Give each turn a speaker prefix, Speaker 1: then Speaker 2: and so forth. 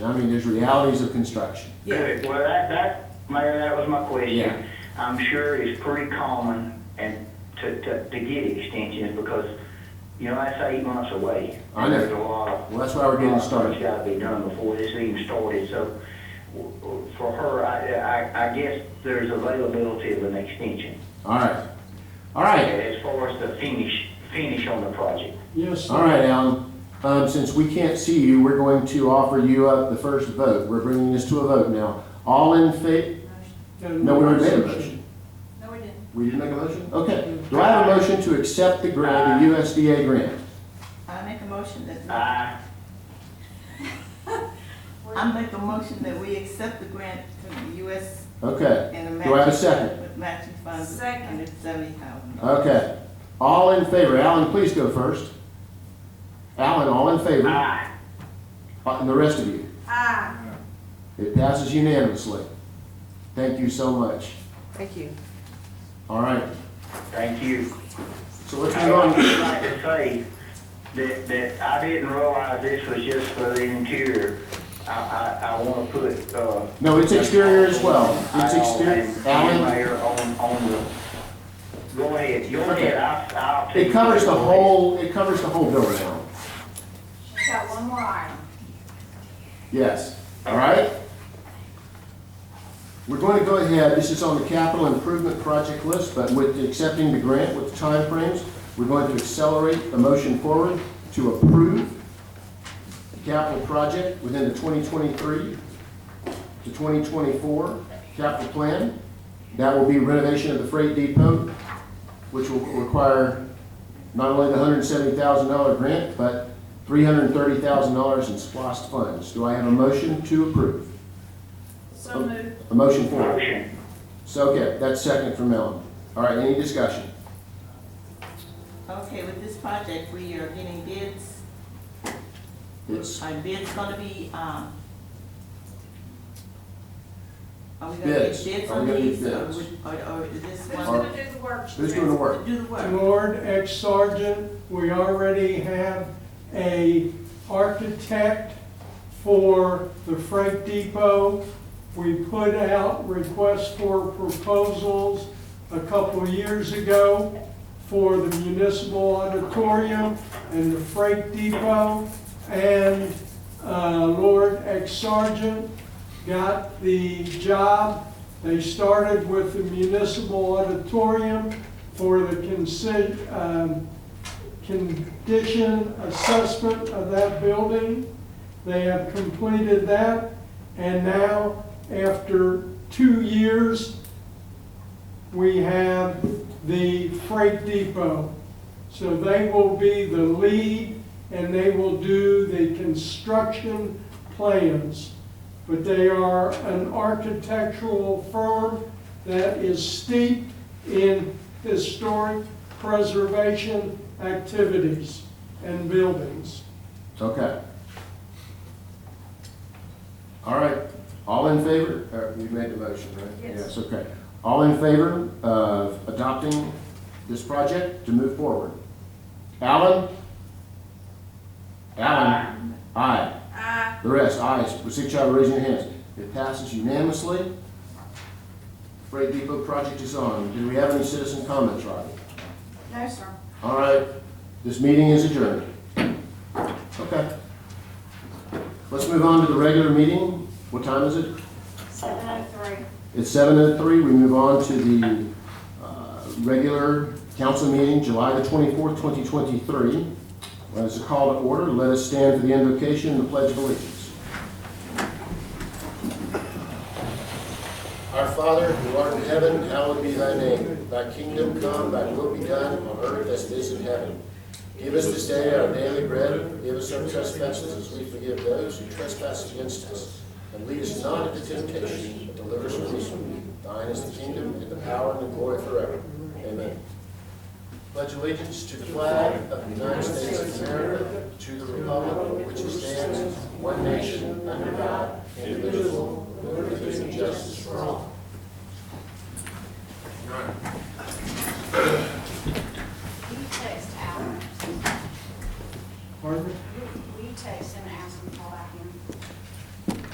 Speaker 1: I mean, there's realities of construction.
Speaker 2: Good. Well, that, that, Mayor, that was my
Speaker 1: Yeah.
Speaker 2: question. I'm sure it's pretty common and to, to, to get extensions because, you know, that's eight months away.
Speaker 1: I know.
Speaker 2: There's a lot of.
Speaker 1: Well, that's why we're getting started.
Speaker 2: It's gotta be done before this even started, so w- w- for her, I, I, I guess there's availability of an extension.
Speaker 1: All right. All right.
Speaker 2: As far as the finish, finish on the project.
Speaker 3: Yes,
Speaker 1: All right, Alan. Um, since we can't see you, we're going to offer you up the first vote. We're bringing this to a vote now. All in fa, no, we already made a motion.
Speaker 4: No, we didn't.
Speaker 1: We didn't make a motion? Okay. Do I have a motion to accept the grant, the USDA grant?
Speaker 4: I make a motion that,
Speaker 2: I,
Speaker 4: I make a motion that we accept the grant from the US
Speaker 1: Okay.
Speaker 4: and the
Speaker 1: Do I have a
Speaker 4: matching
Speaker 1: second?
Speaker 4: with matching funds of
Speaker 5: Second.
Speaker 4: hundred seventy thousand.
Speaker 1: Okay. All in favor? Alan, please go first. Alan, all in favor?
Speaker 2: I,
Speaker 1: Uh, And the rest of you?
Speaker 5: Aye.
Speaker 1: It passes unanimously. Thank you so much.
Speaker 6: Thank you.
Speaker 1: All right.
Speaker 2: thank you.
Speaker 1: So let's
Speaker 2: I
Speaker 1: move
Speaker 2: would
Speaker 1: on.
Speaker 2: just like to say that, that I didn't realize this was just for the interior. I, I, I wanna put, uh.
Speaker 1: No, it's exterior as well. It's exterior.
Speaker 2: Al and- and
Speaker 1: Alan?
Speaker 2: Mayor on, on the, go ahead, go
Speaker 1: Okay.
Speaker 2: ahead, I, I'll.
Speaker 1: It covers the whole, it covers the whole building now.
Speaker 5: She's got one more item.
Speaker 1: Yes, all right? We're going to go ahead, this is on the capital improvement project list, but with accepting the grant with timeframes, we're going to accelerate the motion forward to approve the capital project within the 2023 to 2024 capital plan. That will be renovation of the freight depot, which will require not only the $170,000 grant, but $330,000 in SPOS funds. Do I have a motion to approve?
Speaker 5: So
Speaker 1: Oh.
Speaker 5: moved.
Speaker 1: A motion for it.
Speaker 2: Motion,
Speaker 1: So, okay, that's second from Ellen. All right, any discussion?
Speaker 4: Okay, with this project, we are getting bids,
Speaker 1: It's
Speaker 4: are bids gonna be, um, are we gonna
Speaker 1: Bids.
Speaker 4: get bids
Speaker 1: Are we
Speaker 4: on
Speaker 1: gonna get
Speaker 4: these, or,
Speaker 1: bids?
Speaker 4: would- or or is this
Speaker 5: Who's
Speaker 4: one
Speaker 5: gonna do the work?
Speaker 1: who's doing the work?
Speaker 4: do the work?
Speaker 3: Lord ex-sergeant, we already have a architect for the freight depot. We put out requests for proposals a couple of years ago for the municipal auditorium and the freight depot. And uh, Lord ex-sergeant got the job. They started with the municipal auditorium for the consi- um, condition assessment of that building. They have completed that, and now, after two years, we have the freight depot. So they will be the lead, and they will do the construction plans. But they are an architectural firm that is steeped in historic preservation activities and buildings.
Speaker 1: Okay. All right, all in favor? Or You made the motion, right?
Speaker 5: Yes.
Speaker 1: okay. All in favor of adopting this project to move forward? Alan? Alan? Aye.
Speaker 5: Aye.
Speaker 1: The rest, ayes, with six shall raise your hands. It passes unanimously. Freight Depot project is on. Do we have any citizen comments, Robbie?
Speaker 5: No, sir.
Speaker 1: All right, this meeting is adjourned. Okay. Let's move on to the regular meeting. What time is it?
Speaker 5: Seven oh three.
Speaker 1: It's seven oh three. We move on to the, uh, regular council meeting, July the twenty-fourth, twenty twenty-three. As a call to order, let us stand for the invocation and the pledge of allegiance. Our Father, who art in heaven, hallowed be thy name. Thy kingdom come, thy will be done on earth as it is in heaven. Give us this day our daily bread, and forgive us our trespasses as we forgive those who trespass against us. And lead us not into temptation, but deliver us from evil. Thine is the kingdom, and the power, and the glory forever. Amen. Pledge allegiance to the flag of the United States of America, to the republic for which it stands, one nation, under God,